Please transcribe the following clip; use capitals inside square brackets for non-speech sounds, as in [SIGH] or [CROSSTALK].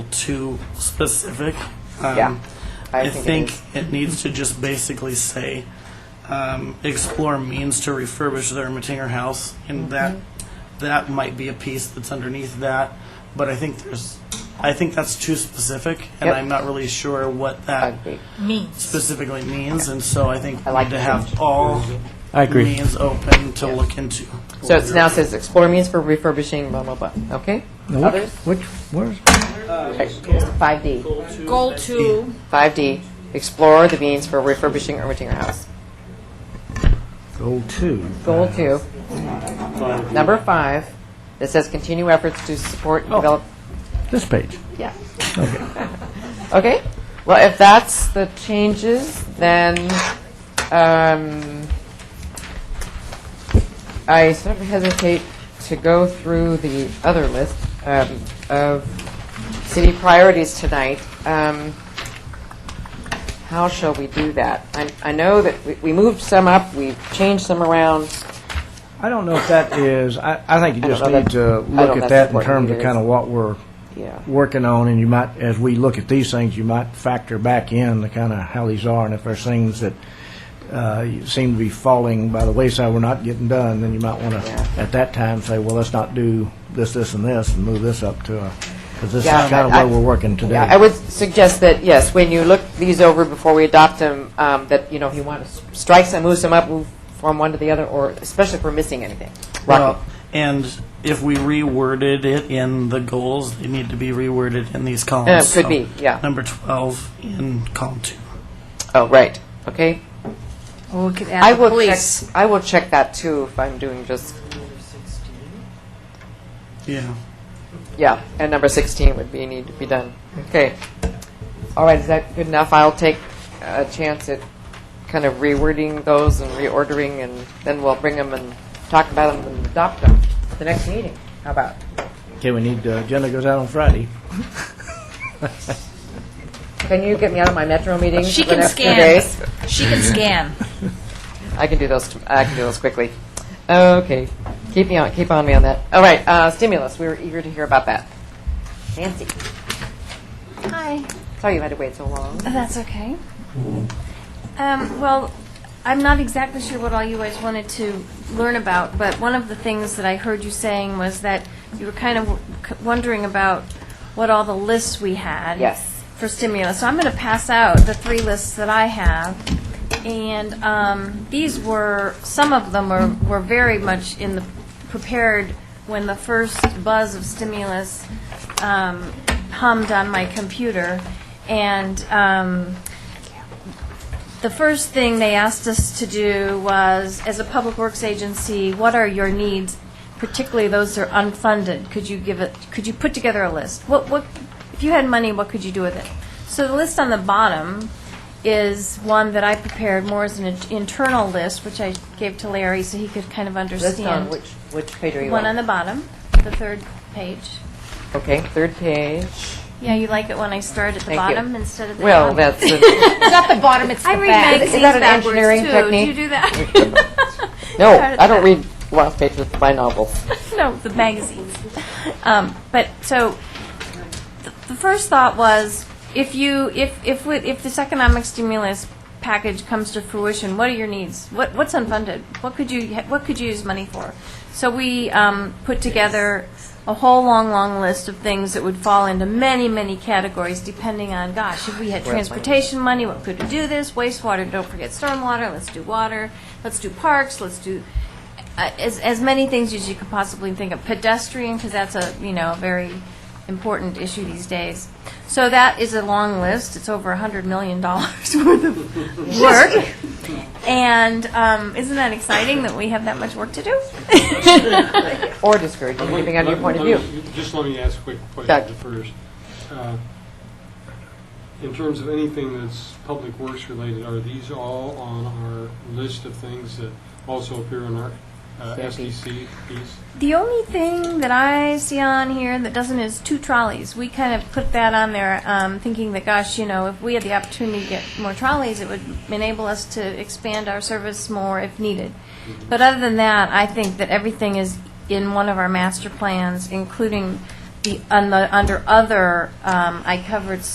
too specific. Yeah, Um, I I think think it is. it needs to just basically say, um, explore means to refurbish their Ermitinger house, and that, that might be a piece that's underneath that, but I think there's, I think that's too specific, and Yep. I'm not really sure what I that agree. means. specifically means, and so I think I we like need to the have all I agree. means open to look into. So it now says explore means for refurbishing, blah, blah, blah. Okay? Now, Which, Others? which, where's, 5D. Goal two, 5D, explore the means for refurbishing or renting your house. goal two? Goal two, number five, that says continue efforts to support and develop, This page. yeah. Okay? Well, if that's the changes, then um, I sort of hesitate to go through the other list um, of city priorities tonight. Um, How shall we do that? I- I know that we- we moved some up, we changed some around. I don't know if that is, I, I think you I don't just know need that- I to don't look know at if that that's in what terms it of is. kind of what we're Yeah. working on, and you might, as we look at these things, you might factor back in the kind of how these are, and if there's things that uh, you seem to be falling by the wayside, we're not getting done, then you might want to, Yeah. at that time, say, well, let's not do this, this, and this, and move this up to a, because this is Yeah, kind of I- where we're working today. Yeah, I would suggest that, yes, when you look these over before we adopt them, um, that, you know, if you want to strike some, move some up, move from one to the other, or especially if we're missing anything. Rocky? Well, and if we reworded it in the goals, they need to be reworded in these columns. Uh, could So, be, yeah. Number 12 in column two. Oh, right, okay. Well, we could I add the will check, police. I will check that too if I'm doing just, Yeah. yeah, and number 16 would be, need to be done. Okay. All right, is that good enough? I'll take a chance at kind of rewording those and reordering, and then we'll bring them and talk about them and adopt them at the next meeting. How about? Okay, we need, the agenda goes out on Friday. Can you get me out of my Metro meeting? She for the can next few scan. days? She can scan. I can do those. t- I can do those quickly. Okay, keep me on. Keep on me on that. All right, uh, stimulus. We were eager to hear about that. Nancy, Hi, sorry you had to wait so long. that's okay. Um, well, I'm not exactly sure what all you guys wanted to learn about, but one of the things that I heard you saying was that you were kind of w- c- wondering about what all the lists we had. Yes. For stimulus. So I'm going to pass out the three lists that I have. And um, these were, some of them were, were very much in the, prepared when the first buzz of stimulus um, hummed on my computer. And um, the first thing they asked us to do was, as a public works agency, what are your needs, particularly those that are unfunded? Could you give it, could you put together a list? What, what, if you had money, what could you do with it? So the list on the bottom is one that I prepared more as an in- internal list, which I gave to Larry so he could kind of List on understand. which which page are you One on the bottom, the third page. okay, third page. Yeah, you like it when I start at the Thank you. bottom instead of the Well, top? that's a, I read magazines Is that an backwards, engineering too. technique? Do you do that? [LAUGHS] no. Start at I the don't read last pages of my novels. no, the magazines. Um, but so th- the first thought was if you if if we, if this economic stimulus package comes to fruition, what are your needs? What what's unfunded? What could you ha- what could you use money for? So we um, put together a whole long long list of things that would fall into many many categories depending on gosh if we had transportation money what could we do this wastewater don't forget stormwater let's do water let's do parks let's do uh, as, as many things as you could possibly think of. Pedestrian, because that's a, you know, a very important issue these days. So that is a long list. It's over $100 million [LAUGHS] worth of work. And um, isn't that exciting that we have that much work to do? Or discouraging, depending on your point of Let- view. let me- Just let me ask a quick Doug. question first. Uh, In terms of anything that's public works related, are these all on our list of things that also appear in our uh, SDC piece? The only thing that I see on here that doesn't is two trolleys. We kind of put that on there, um, thinking that, gosh, you know, if we had the opportunity to get more trolleys, it would enable us to expand our service more if needed. But other than that, I think that everything is in one of our master plans, including the, on the, under other, um, I covered